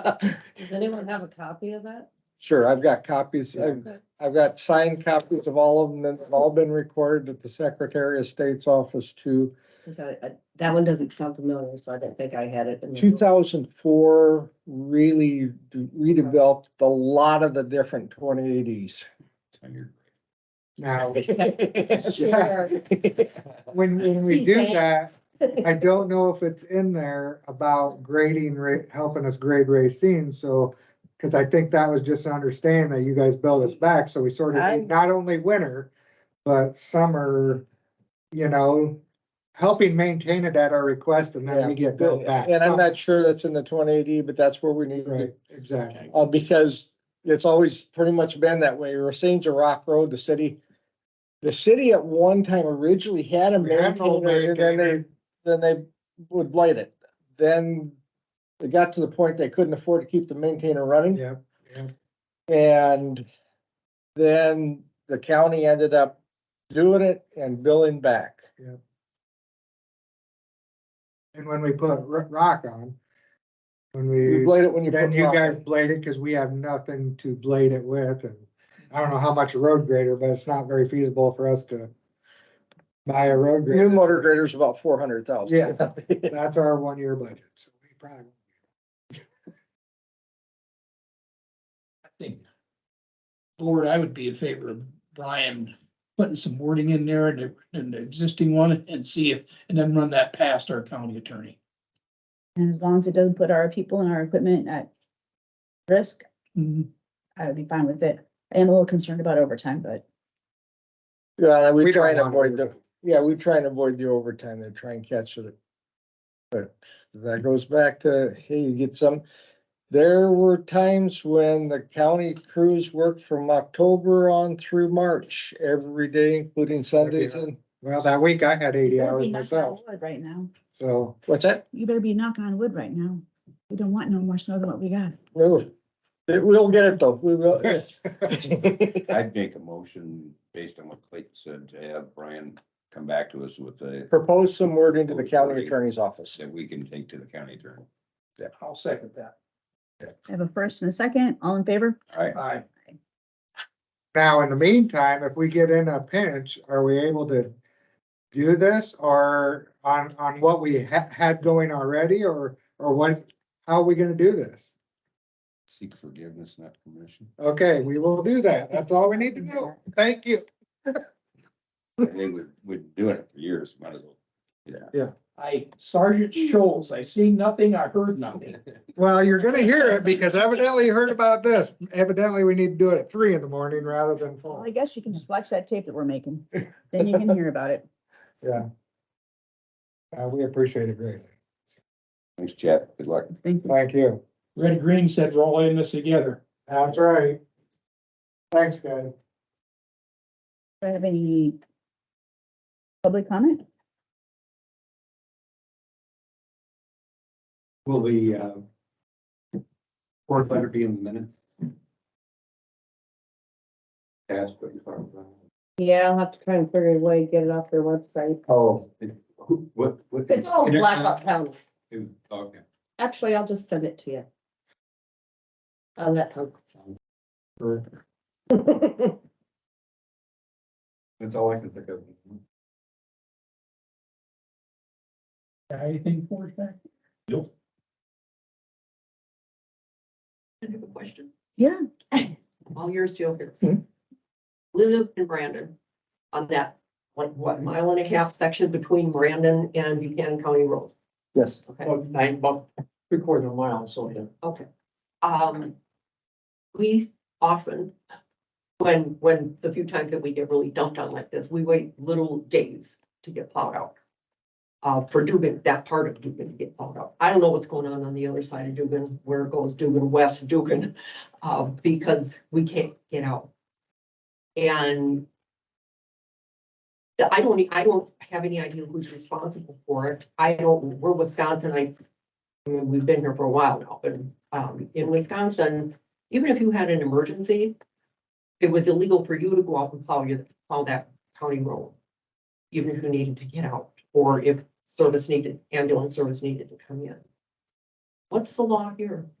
Does anyone have a copy of that? Sure, I've got copies. I've, Okay. I've got signed copies of all of them. that have all been recorded at the Secretary of State's office too. 'Cause I- I- That one doesn't sound familiar, so I didn't think I had it. in the- Two thousand four really d- redeveloped a lot of the different twenty eighties. Now, Share. when, when we do that, Thanks. I don't know if it's in there about grading, ra- helping us grade Racine, so. Cause I think that was just to understand that you guys build us back, so we sort of, I'm- did not only winter, but summer, you know. Helping maintain it at our request and then we get built back. And I'm not sure that's in the twenty eighty, but that's where we need to Right, exactly. Uh, because it's always pretty much been that way. Racine's a rock road, the city. The city at one time originally had a We had no maintainer, and then they, maintainer. then they would blight it. Then they got to the point they couldn't afford to keep the maintainer running Yep, yep. and then the county ended up doing it and billing back. And when we put ro- rock on, when You we. blade it when you. Then put you rock. guys blade it, cause we have nothing to blade it with, and I don't know how much a road grader, but it's not very feasible for us to. Buy a road New grader, motor grader's about four hundred thousand. Yeah. that's our one-year budget, so we probably, I think. Board, I would be in favor of Brian putting some wording in there and the, and the existing one and see if, and then run that past our county attorney. And as long as it doesn't put our people and our equipment at risk, Mhm. I would be fine with it. I am a little concerned about overtime, but Yeah, we We don't try and want avoid the, overtime. yeah, we try and avoid the overtime and try and catch it. But that goes back to, hey, you get some, there were times when the county crews worked from October on through March, every day, including Sundays and, well, that week I had you eighty better hours be knocking on myself, wood right now. so. what's that? You better be knocking on wood right now. We don't want no more snow than what we got. No, we'll get it though, we will. I'd make a motion based on what Clayton said to have Brian come back to us with a, Propose some wording to the county attorney's office. that we can take to the county attorney. I'll second that. I have a first and a second. All in favor? All right, Aye. Now, in the meantime, if we get in a pinch, are we able to do this or on, on what we ha- had going already or, or what, how are we gonna do this? seek forgiveness, not permission. Okay, we will do that. That's all we need to do. Thank you. They would, would do it for years, might as well. I Sergeant Scholes, I seen nothing, I heard nothing. Well, you're gonna hear it because evidently you heard about this. Evidently, we need to do it at three in the morning rather than Well, four. I guess you can just watch that tape that we're making. Then you can hear about it. Uh, we appreciate it greatly. Thanks, Chad. Good luck. Thank you. Thank you. Red Green said we're all in this together. That's right. Thanks, guys. Do I have any public comment? Will the uh, fourth letter be in the minutes? Ask what you're talking about. Yeah, I'll have to try and figure a way to get it off their website. Oh. it- who- What, what? It's all Blackhawk County. It- Okay. Actually, I'll just send it to you. Oh, that sounds. Sure. That's all I can think of. Got Anything for us back? Nope. I have a question. Yeah. All yours still here. Hmm. Lulu and Brandon, on that, like, what, mile and a half section between Brandon and Buchanan County Road? Yes. Okay. Nine, about three quarter of a mile, so yeah. Okay. Um, we often, when, when the few times that we get really dumped on like this, we wait little days to get plowed out. Uh, for Dugan, that part of Dugan to get plowed out. I don't know what's going on on the other side of Dugan, where it goes Dugan West, Dugan, uh, because we can't get out. And the- I don't, e, I don't have any idea who's responsible for it. I don't, we're Wisconsinites. I mean, we've been here for a while now, but, um, in Wisconsin, even if you had an emergency, it was illegal for you to go out and plow your, plow that county road. Even if you needed to get out, or if service needed, ambulance service needed to come in. What's the law here?